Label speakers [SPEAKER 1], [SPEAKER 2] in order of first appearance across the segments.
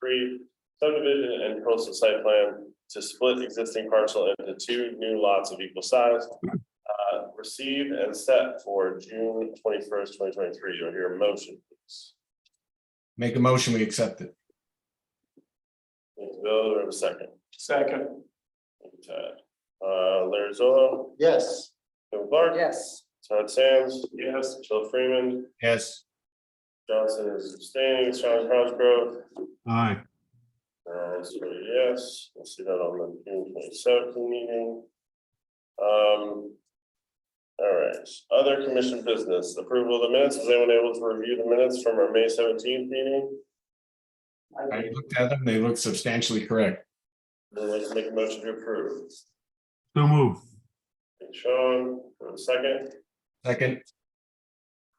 [SPEAKER 1] pre subdivision and coastal site plan to split existing parcel into two new lots of equal size. Uh, received and set for June twenty-first, twenty twenty-three. You'll hear a motion. please.
[SPEAKER 2] Make a motion, we accept it.
[SPEAKER 1] Thank you, Bill, do I have a second?
[SPEAKER 3] Second.
[SPEAKER 1] Thank you, Ted. Uh, Larry Zolo,
[SPEAKER 3] Yes.
[SPEAKER 1] Bill Clark.
[SPEAKER 3] Yes.
[SPEAKER 1] Todd Sands,
[SPEAKER 3] Yes.
[SPEAKER 1] Jill Freeman,
[SPEAKER 2] Yes.
[SPEAKER 1] Johnson is abstaining, Sean Crossgrove.
[SPEAKER 2] Aye.
[SPEAKER 1] Uh, so yes, we'll see that on the June twenty seventh meeting. Um. All right, other commission business, approval of the minutes, is anyone able to review the minutes from our May seventeenth meeting?
[SPEAKER 2] I looked at them. They look substantially correct.
[SPEAKER 1] Then let's make a motion to approve.
[SPEAKER 4] So move.
[SPEAKER 1] Thank you, Sean, for a second,
[SPEAKER 2] Second.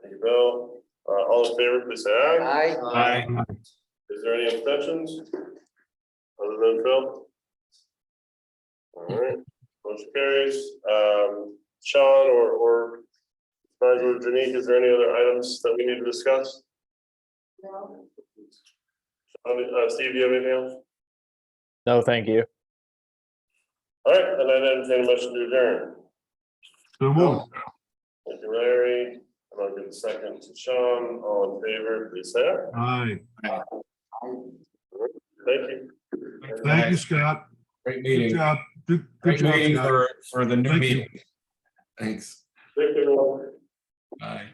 [SPEAKER 1] thank you, Bill, uh, all in favor, please say aye.
[SPEAKER 3] Aye.
[SPEAKER 2] Aye.
[SPEAKER 1] Is there any abstentions? Other than Phil? All right, motion carries. Um, Sean or, or Nigel or Janique, is there any other items that we need to discuss? Sean, Uh, Steve, do you have anything else?
[SPEAKER 5] No, thank you.
[SPEAKER 1] All right, then I entertain a motion to adjourn.
[SPEAKER 4] So move.
[SPEAKER 1] Thank you, Larry. And I'll give a second to Sean. All in favor, please say aye.
[SPEAKER 4] Aye.
[SPEAKER 1] Thank you.
[SPEAKER 4] Thank you, Scott.
[SPEAKER 2] Great
[SPEAKER 4] Good
[SPEAKER 2] meeting.
[SPEAKER 4] job. Good good
[SPEAKER 2] Great meeting
[SPEAKER 4] job, Scott.
[SPEAKER 2] for, for the new
[SPEAKER 4] Thank you.
[SPEAKER 2] meeting. Thanks.
[SPEAKER 1] Thank you, everyone.
[SPEAKER 2] Bye.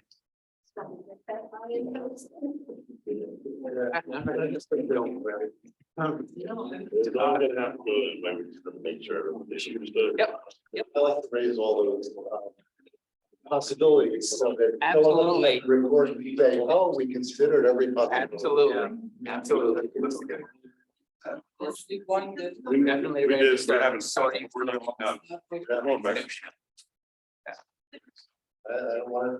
[SPEAKER 1] I'm gonna have to, I would just make sure everyone issues the. Yep, yep. I like to raise all those. uh, Possibilities. so that-
[SPEAKER 6] Absolutely. Record, and say, oh, we considered every possibility.
[SPEAKER 3] Absolutely, absolutely.
[SPEAKER 6] Let's
[SPEAKER 3] do one good.
[SPEAKER 6] We definitely
[SPEAKER 3] We
[SPEAKER 6] raised-
[SPEAKER 3] did start having starting, we're not, no.
[SPEAKER 6] Uh, I, I don't wanna